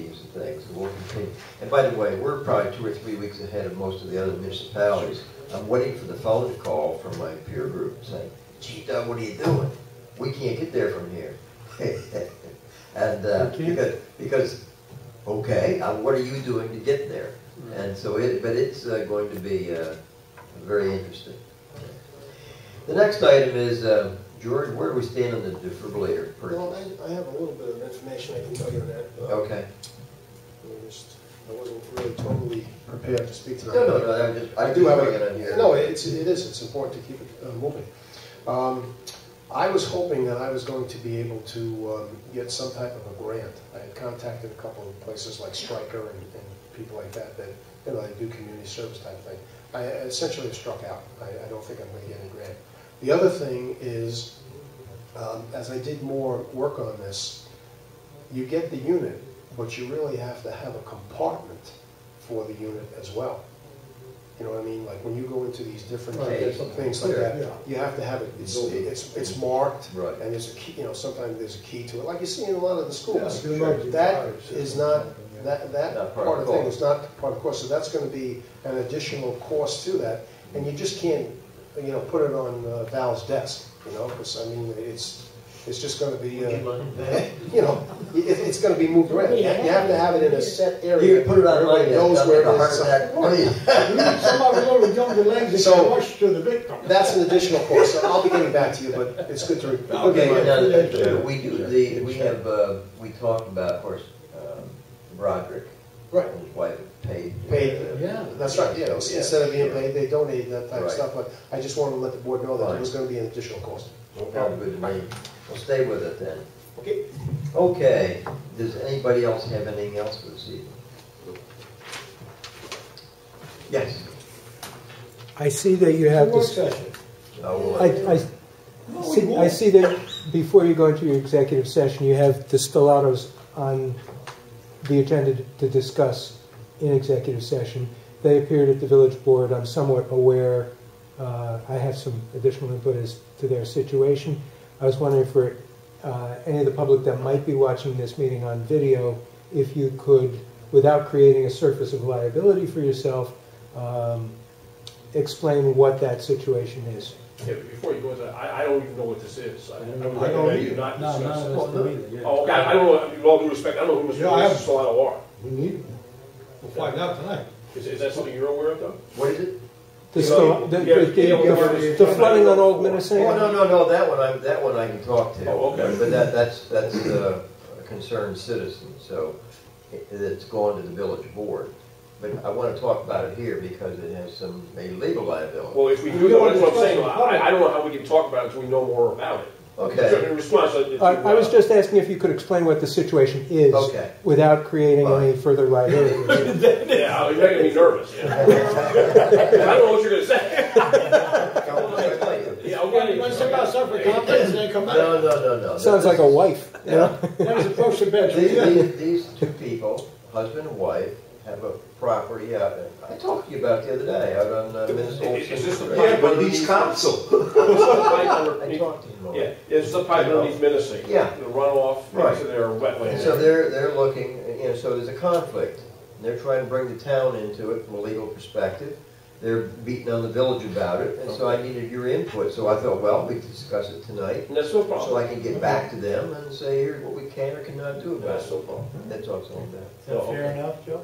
things will continue. And by the way, we're probably two or three weeks ahead of most of the other municipalities. I'm waiting for the fellow to call from my peer group saying, gee, Doug, what are you doing? We can't get there from here. And, uh, We can't. because, because, okay, uh, what are you doing to get there? And so it, but it's uh, going to be uh, very interesting. The next item is, uh, George, where do we stand on the defibrillator Well, purchase? I, I have a little bit of information I can tell you on that. uh, Okay. I just- I wasn't really totally prepared to speak to that. No, no, no, I'm just, I do have it on here. No, it's, it is, it's important to keep it uh, moving. Um, I was hoping that I was going to be able to um, get some type of a grant. I had contacted a couple of places like Stryker and, and people like that, that, you know, they do community service type thing. I essentially have struck out. I, I don't think I'm gonna get any grant. The other thing is, um, as I did more work on this, you get the unit, but you really have to have a compartment for the unit as well. You know what I mean? Like when you go into these different Right, there's things like clear, that, you have to have it, it's, it's, it's marked, Right. and there's a key, you know, sometimes there's a key to it, like you see in a lot of the schools. Yeah, if you look, you That fire system. is not, that, Not that part part of of the the thing cost. is not part of the course, so that's gonna be an additional cost to that, and you just can't, you know, put it on uh, Val's desk, you know, because, I mean, it's, it's just gonna be, uh, you know, it, it's gonna be moved around. You have you have to have it in a set area. You can put it on my Everybody desk, knows I'm where it gonna is. hurt that. What are you- Somebody already jumped the legs and So- rushed to the victim. That's an additional cost, so I'll be getting back to you, but it's good to. re- Okay, Okay, now, yeah. uh, we do, the, we have, uh, we talked about, of course, um, Roderick. Right. and His wife paid. uh, Paid, yeah. That's right, yeah, Yeah, instead of being sure. paid, they donated that type of Right. stuff, but I just wanted to let the board know that Fine. it was gonna be an additional cost. No problem with me. We'll stay with it then. Okay. Okay, does anybody else have anything else for this evening? Yes. I see that you have, Work dis- session. I will- I, I No, we see, I won't. see that before you go into your executive session, you have distillados on the agenda to- to discuss in executive session. They appeared at the village board, I'm somewhat aware, uh, I have some additional input as to their situation. I was wondering for, uh, any of the public that might be watching this meeting on video, if you could, without creating a surface of liability for yourself, um, explain what that situation is. Yeah, but before you go into that, I, I don't even know what this is. I don't I don't either. Not No, none discuss. of us do either, yeah. Oh, okay, I I don't know, with all due respect, I don't know who Yeah, I Mr. have- Solano are. We need, we'll find out tonight. Is, is that something you're aware of though? What is it? The, Yeah, sto- the, yeah, the, yeah, the, yeah, the yeah. flooding on Old Oh, no, Minnesota. no, no, that one, I, that one I can talk to. Oh, okay. But that, that's, that's uh, a concerned citizen, so it- it's going to the village board. But I want to talk about it here because it has some, a legal liability. Well, if we We do, don't that's what I'm discuss saying, it. I, I don't know how we can talk about it until we know more about it. Okay, In response, I. I, I was just asking if you could explain what the situation is Okay. without creating any further liability. Yeah, you're making me nervous. yeah. I don't know what you're gonna say. Yeah, okay. Let's take our separate conference and then come back. No, no, no, no. Sounds like a wife. you know? That was approach the bench. These, Yeah. these- these two people, husband and wife, have a property out there. I talked to you about the other day, out on uh, Minnesota. Is this the Street. pipe underneath? council. I talked to him about Yeah, it. it's the pipe underneath Minnesota. Yeah. The runoff Right. into their And so wetlands. they're, they're looking, you know, so there's a conflict. They're trying to bring the town into it from a legal perspective. They're beating on the village about it, and so I needed your input, so I thought, well, we could discuss it tonight. And that's no So problem. I can get back to them and say, here's what we can or cannot do about That's it. no problem. That's all it's all about. Is that Fair enough, Joe?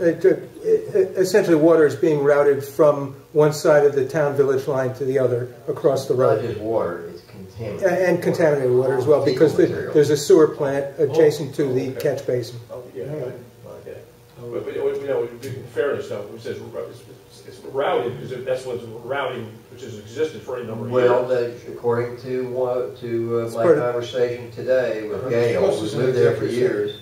It took- it- it- Essentially, water is being routed from one side of the town-village line to the other across the Not road. just water, it's A- contaminated. And contaminated water as well, because Fecal the- material. there's a sewer plant adjacent to the Oh, okay. catch basin. Yeah, yeah. But, but, you know, in fairness though, it says, ro- it's- it's routing, because if that's what's routing, which has existed for any number of years. Well, that- according to, what- to uh, my part of- conversation today with Uh-huh. Gail, Plus who's it's an lived there for executive session. years,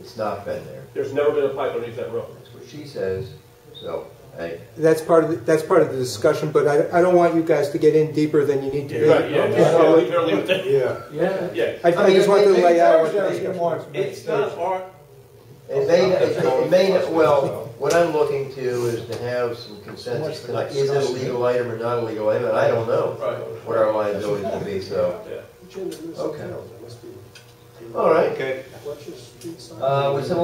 it's not been there. There's never been a pipe underneath that road. That's what she says, so, hey, That's part of, the- that's part of the discussion, but I, I don't want you guys to get in deeper than you need to be. Right, yeah, just, uh, leave it- leave it there. Yeah. Yeah. Yeah. I I just want to lay out what Thursday's been more It's not our, It may, it may, well, what I'm looking to is to have some consensus tonight, is it a legal item or not a legal item, and I don't know Right. what our liability will be, so, Yeah. Jim, there's a Okay. town, there must be- all right. okay. Fletcher's Street sign? Uh, would someone